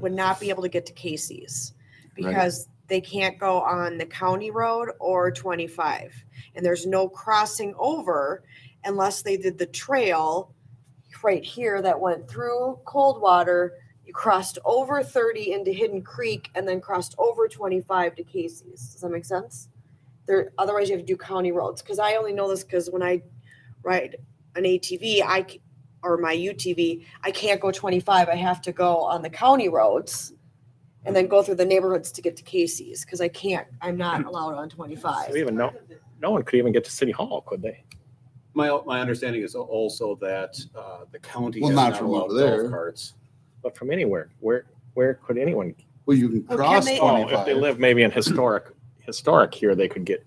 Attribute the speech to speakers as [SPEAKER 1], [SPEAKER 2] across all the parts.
[SPEAKER 1] would not be able to get to Casey's
[SPEAKER 2] Right.
[SPEAKER 1] because they can't go on the county road or 25. And there's no crossing over unless they did the trail right here that went through Coldwater. You crossed over 30 into Hidden Creek and then crossed over 25 to Casey's. Does that make sense? There, otherwise you have to do county roads. Cause I only know this because when I ride an ATV, I, c- or my UTV, I can't go 25. I have to go on the county roads and then go through the neighborhoods to get to Casey's because I can't, I'm not allowed on
[SPEAKER 3] Mm. So We
[SPEAKER 1] 25.
[SPEAKER 3] even no, no one could even get to City Hall, could they?
[SPEAKER 4] My, my understanding is also that uh, the county
[SPEAKER 2] Well,
[SPEAKER 4] does
[SPEAKER 2] not
[SPEAKER 4] not
[SPEAKER 2] from
[SPEAKER 4] allow
[SPEAKER 2] over
[SPEAKER 4] golf
[SPEAKER 2] there.
[SPEAKER 4] carts.
[SPEAKER 3] But from anywhere, where, where could anyone?
[SPEAKER 2] Well, you can
[SPEAKER 1] Well, can
[SPEAKER 2] cross
[SPEAKER 1] they-
[SPEAKER 3] Oh, if
[SPEAKER 2] twenty-five.
[SPEAKER 3] they live maybe in historic, historic here, they could get,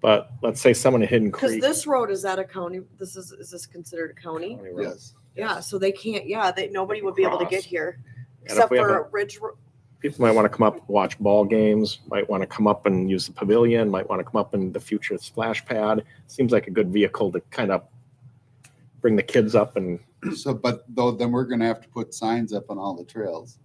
[SPEAKER 3] but let's say someone in Hidden
[SPEAKER 1] Because
[SPEAKER 3] Creek.
[SPEAKER 1] this road is at a county, this is, is this considered a county?
[SPEAKER 3] County Road.
[SPEAKER 2] Yes.
[SPEAKER 1] Yeah, so they can't, yeah, they, nobody would be able to get
[SPEAKER 3] Cross.
[SPEAKER 1] here
[SPEAKER 3] And if
[SPEAKER 1] except
[SPEAKER 3] we have
[SPEAKER 1] for Ridge, Ro-
[SPEAKER 3] a- People might want to come up, and watch ball games, might want to come up and use the pavilion, might want to come up in the future splash pad. Seems like a good vehicle to kind of bring the kids up and
[SPEAKER 2] So, but though, then we're gonna have to put signs up on all the trails.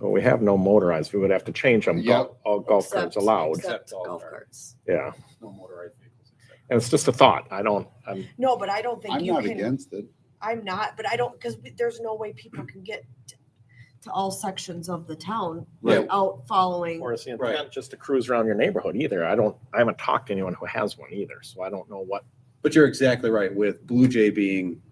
[SPEAKER 3] Well, we have no motorized. We would have to change them.
[SPEAKER 2] Yep.
[SPEAKER 3] Gol- All golf carts
[SPEAKER 1] Except-
[SPEAKER 3] allowed.
[SPEAKER 1] except
[SPEAKER 4] Except golf
[SPEAKER 1] golf
[SPEAKER 4] cart.
[SPEAKER 1] carts.
[SPEAKER 3] Yeah.
[SPEAKER 4] No motorized vehicles. except-
[SPEAKER 3] And it's just a thought. I don't, I'm,
[SPEAKER 1] No, but I don't think
[SPEAKER 2] I'm
[SPEAKER 1] you
[SPEAKER 2] not
[SPEAKER 1] can,
[SPEAKER 2] against it.
[SPEAKER 1] I'm not, but I don't, because there's no way people can get t- to all sections of the town
[SPEAKER 2] Right.
[SPEAKER 1] without following.
[SPEAKER 3] or it's the
[SPEAKER 4] Right.
[SPEAKER 3] intent just to cruise around your neighborhood either. I don't, I haven't talked to anyone who has one either. So I don't know what,
[SPEAKER 4] But you're exactly right with Blue Jay being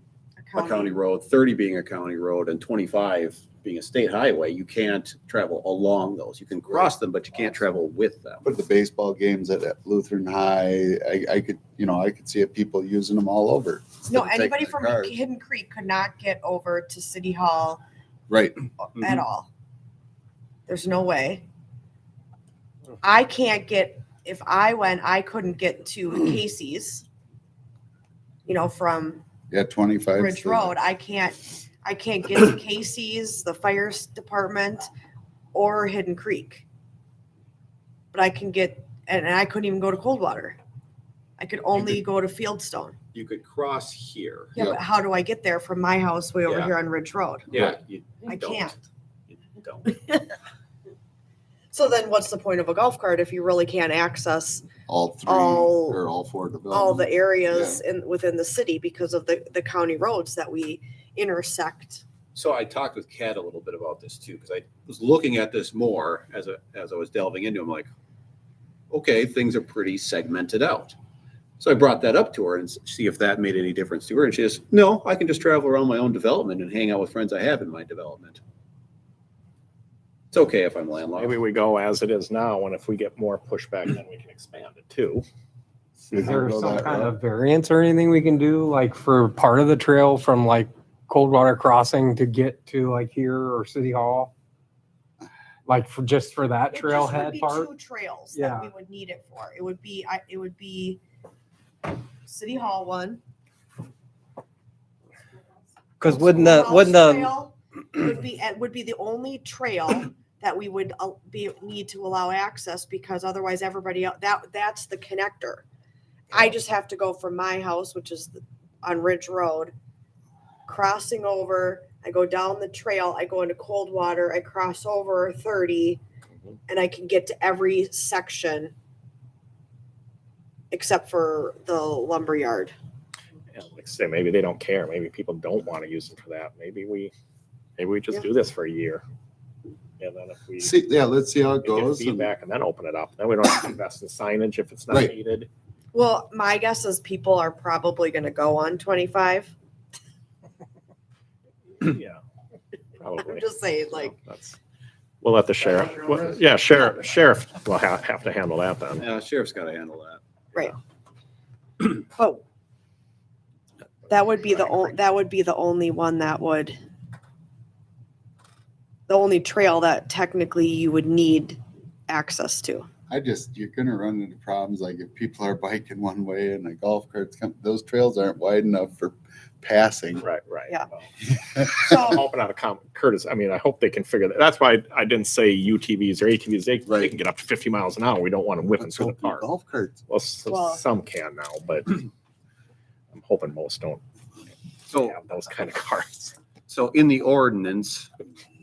[SPEAKER 1] a
[SPEAKER 4] a county road, thirty being a county road and twenty-five being a state highway. You can't travel along those. You can cross them, but you can't travel with them.
[SPEAKER 2] Put the baseball games at at Lutheran High. I, I could, you know, I could see it, people using them all over.
[SPEAKER 1] No,
[SPEAKER 2] Instead of
[SPEAKER 1] anybody
[SPEAKER 2] taking
[SPEAKER 1] from
[SPEAKER 2] their cars.
[SPEAKER 1] Hidden Creek could not get over to City Hall
[SPEAKER 2] Right.
[SPEAKER 1] at
[SPEAKER 4] Mm-hmm.
[SPEAKER 1] all. There's no way. I can't get, if I went, I couldn't get to Casey's, you know, from
[SPEAKER 2] Yeah, twenty-five.
[SPEAKER 1] Ridge Road. I can't, I can't get to Casey's, the fire s- department, or Hidden Creek. But I can get, and and I couldn't even go to Coldwater. I could only go to Fieldstone.
[SPEAKER 4] You could cross here.
[SPEAKER 1] Yeah,
[SPEAKER 2] Yeah.
[SPEAKER 1] but how do I get there from my house way over
[SPEAKER 4] Yeah.
[SPEAKER 1] here on Ridge Road?
[SPEAKER 4] Yeah. you
[SPEAKER 1] I
[SPEAKER 4] don't.
[SPEAKER 1] can't.
[SPEAKER 4] You don't.
[SPEAKER 1] So then what's the point of a golf cart if you really can't access
[SPEAKER 2] All three
[SPEAKER 1] All-
[SPEAKER 2] or all four developments.
[SPEAKER 4] Um,
[SPEAKER 1] all the areas in, within the city because of the, the county roads that we intersect?
[SPEAKER 4] So I talked with Kat a little bit about this too, because I was looking at this more as a, as I was delving into, it. I'm like, okay, things are pretty segmented out. So I brought that up to her and s- see if that made any difference to her. And she says, no, I can just travel around my own development and hang out with friends I have in my development. It's okay if I'm
[SPEAKER 3] maybe
[SPEAKER 4] landlocked.
[SPEAKER 3] we go as it is now. And if we get more pushback, then we can expand it too.
[SPEAKER 2] You
[SPEAKER 5] Is
[SPEAKER 2] can
[SPEAKER 5] there
[SPEAKER 2] go
[SPEAKER 5] some
[SPEAKER 2] that
[SPEAKER 5] kind
[SPEAKER 2] route.
[SPEAKER 5] of variance or anything we can do, like for part of the trail from like Coldwater Crossing to get to like here or City Hall? Like for, just for that
[SPEAKER 1] It just would
[SPEAKER 5] trailhead
[SPEAKER 1] be
[SPEAKER 5] part?
[SPEAKER 1] Two trails
[SPEAKER 5] Yeah.
[SPEAKER 1] that we would need it for. It would be, I, it would be City Hall one.
[SPEAKER 6] Because wouldn't the,
[SPEAKER 1] House
[SPEAKER 6] wouldn't the,
[SPEAKER 1] trail Would be, it would be the only trail that we would uh, be, need to allow access because otherwise everybody, el- that, that's the connector. I just have to go from my house, which is the- on Ridge Road, crossing over, I go down the trail, I go into Coldwater, I cross over thirty,
[SPEAKER 3] Mhm.
[SPEAKER 1] and I can get to every section except for the lumberyard.
[SPEAKER 3] And like I say, maybe they don't care. Maybe people don't want to use them for that. Maybe we, maybe we just
[SPEAKER 1] Yeah.
[SPEAKER 3] do this for a year. And then if we.
[SPEAKER 2] See, yeah, let's see how it
[SPEAKER 3] we get
[SPEAKER 2] goes. and-
[SPEAKER 3] feedback and then open it up. Then we don't have to invest in signage if it's not
[SPEAKER 2] Right.
[SPEAKER 3] needed.
[SPEAKER 1] Well, my guess is people are probably gonna go on twenty-five.
[SPEAKER 3] Yeah.
[SPEAKER 1] I'm
[SPEAKER 3] Probably.
[SPEAKER 1] just saying,
[SPEAKER 3] So
[SPEAKER 1] like,
[SPEAKER 3] that's- We'll let the sheriff,
[SPEAKER 4] your own
[SPEAKER 3] well,
[SPEAKER 4] risk.
[SPEAKER 3] yeah, sheriff, sheriff will have, have to handle that then.
[SPEAKER 4] Yeah, sheriff's got to handle that.
[SPEAKER 1] oh. That would be the, on- that would be the only one that would, the only trail that technically you would need access to.
[SPEAKER 2] I just, you're gonna run into problems like if people are biking one way and the golf carts come, those trails aren't wide enough for passing.
[SPEAKER 3] Right, right.
[SPEAKER 1] Yeah.
[SPEAKER 3] Well, I'm
[SPEAKER 1] So,
[SPEAKER 3] hoping out of com Curtis, I mean, I hope they can figure that. That's why I didn't say UTVs or ATVs. They, they
[SPEAKER 2] Right.
[SPEAKER 3] can get up to fifty miles an hour. We don't want them whipping
[SPEAKER 2] Let's
[SPEAKER 3] through the
[SPEAKER 2] hope your
[SPEAKER 3] park.
[SPEAKER 2] Golf carts.
[SPEAKER 3] Well, s-
[SPEAKER 1] Well-
[SPEAKER 3] some can now, but I'm hoping most don't
[SPEAKER 4] So,
[SPEAKER 3] have those kind of cars.
[SPEAKER 4] so in the ordinance,